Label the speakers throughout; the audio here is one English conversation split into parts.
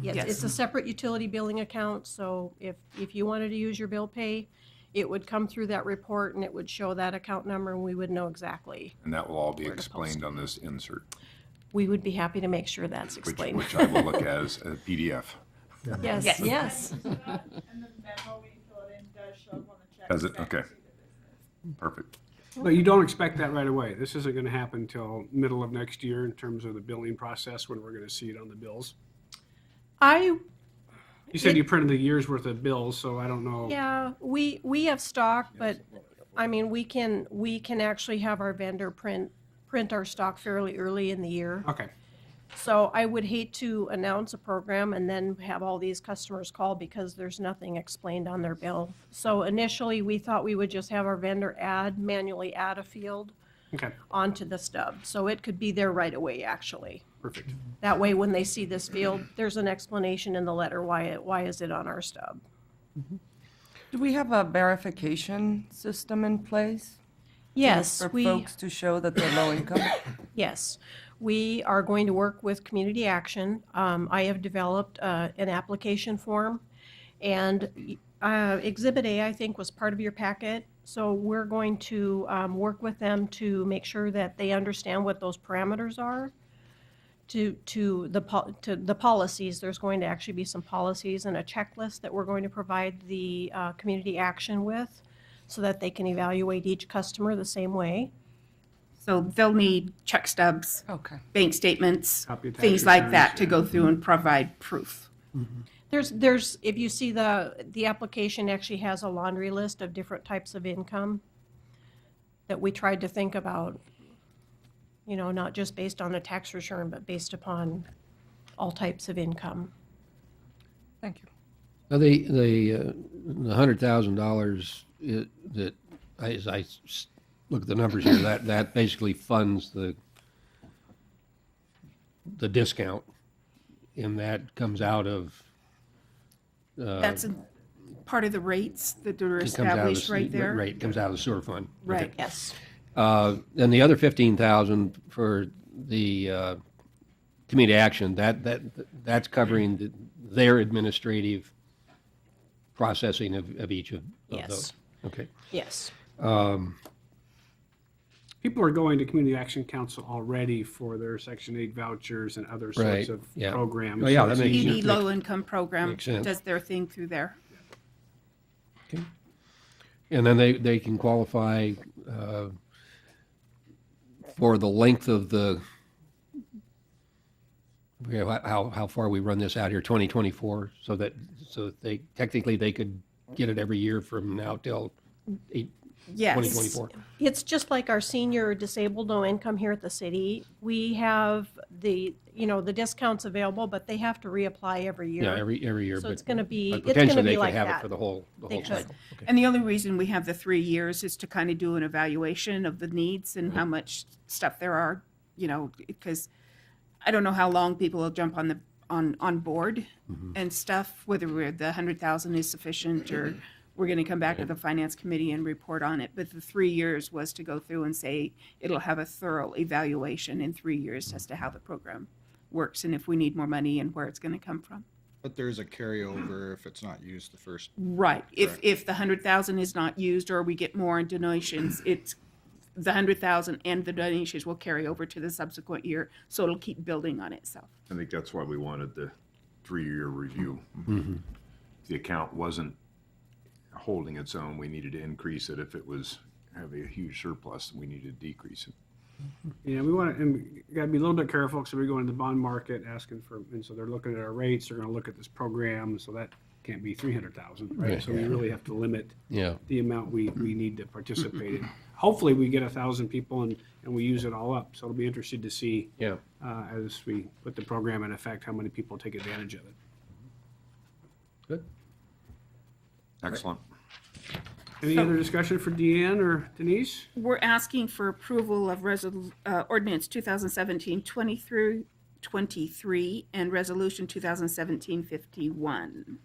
Speaker 1: Yes,
Speaker 2: Yes.
Speaker 1: it's a separate utility billing account, so if, if you wanted to use your bill pay, it would come through that report and it would show that account number and we would know exactly.
Speaker 3: And that will all be
Speaker 1: Where to
Speaker 3: explained on this insert,
Speaker 1: We would be happy to make sure that's
Speaker 3: which,
Speaker 1: explained.
Speaker 3: which I will look at as a PDF.
Speaker 1: Yes,
Speaker 2: Yes.
Speaker 1: yes.
Speaker 4: And then the memo we fill in does show up on the check.
Speaker 3: Does it?
Speaker 4: back
Speaker 3: Okay.
Speaker 4: to the business.
Speaker 3: Perfect.
Speaker 5: But you don't expect that right away. This isn't gonna happen till middle of next year in terms of the billing process, when we're gonna see it on the bills.
Speaker 1: I
Speaker 5: You said
Speaker 1: It-
Speaker 5: you printed the year's worth of bills, so I don't know.
Speaker 1: Yeah, we, we have stock, but, I mean, we can, we can actually have our vendor print, print our stock fairly early in the year.
Speaker 5: Okay,
Speaker 1: So I would hate to announce a program and then have all these customers call because there's nothing explained on their bill. So initially, we thought we would just have our vendor add, manually add a field
Speaker 5: okay,
Speaker 1: onto the stub. So it could be there right away, actually.
Speaker 5: perfect.
Speaker 1: That way, when they see this field, there's an explanation in the letter, why, it why is it on our stub?
Speaker 2: Do we have a verification system in place?
Speaker 1: Yes,
Speaker 2: For
Speaker 1: we.
Speaker 2: folks to show that they're low income?
Speaker 1: Yes, we are going to work with Community Action. Um, I have developed uh, an application form, and uh, Exhibit A, I think, was part of your packet. So we're going to um, work with them to make sure that they understand what those parameters are to, to the, pol- to the policies. There's going to actually be some policies and a checklist that we're going to provide the uh, Community Action with so that they can evaluate each customer the same way.
Speaker 6: So they'll need check stubs,
Speaker 2: Okay.
Speaker 6: bank statements,
Speaker 5: Copy of tax
Speaker 6: things like that
Speaker 5: returns,
Speaker 6: to go through and provide proof.
Speaker 1: There's, there's, if you see the, the application actually has a laundry list of different types of income that we tried to think about, you know, not just based on a tax return, but based upon all types of income.
Speaker 2: Thank you.
Speaker 7: Now, the the uh, the hundred thousand dollars uh, that I- as I s- look at the numbers here, that that basically funds the the discount, and that comes out of
Speaker 6: That's a part of the rates that are
Speaker 7: Uh, it comes out of the
Speaker 6: established
Speaker 7: s-
Speaker 6: right there.
Speaker 7: Right, comes out of the sewer fund. Okay.
Speaker 6: Right.
Speaker 1: Yes.
Speaker 7: Uh, and the other fifteen thousand for the uh, community action that that that's covering the, their administrative processing of, of each of, of
Speaker 1: Yes.
Speaker 7: those. Okay.
Speaker 1: Yes.
Speaker 5: People are going to Community Action Council already for their Section 8 vouchers and other sorts
Speaker 7: Right,
Speaker 5: of
Speaker 7: yeah.
Speaker 5: programs.
Speaker 7: Oh, yeah,
Speaker 5: So
Speaker 7: that
Speaker 5: it's
Speaker 7: makes
Speaker 5: easy-
Speaker 7: sense.
Speaker 6: ED Low Income Program
Speaker 7: Makes sense.
Speaker 6: does their thing through there.
Speaker 7: Okay. And then they, they can qualify uh, for the length of the, I forget how- how, how far we run this out here, 2024, so that, so that they, technically, they could get it every year from now till eight,
Speaker 6: Yes.
Speaker 7: 2024.
Speaker 1: It's just like our senior disabled no income here at the city. We have the, you know, the discounts available, but they have to reapply every year.
Speaker 7: Yeah, every, every year.
Speaker 1: So it's
Speaker 7: but-
Speaker 1: gonna be-
Speaker 7: but
Speaker 1: it's gonna
Speaker 7: potentially
Speaker 1: be
Speaker 7: they could
Speaker 1: like
Speaker 7: Have
Speaker 1: that.
Speaker 7: it for the whole, the
Speaker 1: They
Speaker 7: whole
Speaker 1: could.
Speaker 7: cycle. Okay.
Speaker 6: And the only reason we have the three years is to kind of do an evaluation of the needs and how much stuff there are, you know, because I don't know how long people will jump on the, on, on board and stuff, whether we're, the hundred thousand is sufficient or we're gonna come back to the finance committee and report on it. But the three years was to go through and say, it'll have a thorough evaluation in three years as to how the program works and if we need more money and where it's gonna come from.
Speaker 8: But there's a carryover if it's not used the first.
Speaker 6: Right, if,
Speaker 8: Correct.
Speaker 6: if the hundred thousand is not used or we get more in donations, it's, the hundred thousand and the donations will carry over to the subsequent year, so it'll keep building on itself.
Speaker 3: I think that's why we wanted the three-year review. If the account wasn't holding its own, we needed to increase it. If it was having a huge surplus, we needed to decrease it.
Speaker 5: Yeah, we want to, and we gotta be a little bit careful, because we go into the bond market asking for, and so they're looking at our rates, they're gonna look at this program, so that can't be 300,000, right? So we really have to limit
Speaker 7: Yeah.
Speaker 5: the amount we, we need to participate in. Hopefully, we get a thousand people and, and we use it all up, so it'll be interesting to see.
Speaker 7: Yeah.
Speaker 5: Uh, as we put the program in effect, how many people take advantage of it.
Speaker 7: Good.
Speaker 3: Excellent.
Speaker 5: Any other discussion for Deanne or Denise?
Speaker 6: We're asking for approval of resol, uh, ordinance 2017-23 through twenty-three and resolution 2017-51.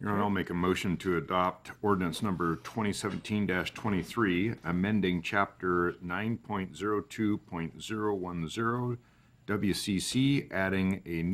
Speaker 3: Your Honor, I'll make a motion to adopt ordinance number 2017-23, amending Chapter 9.02.010 WCC, adding a new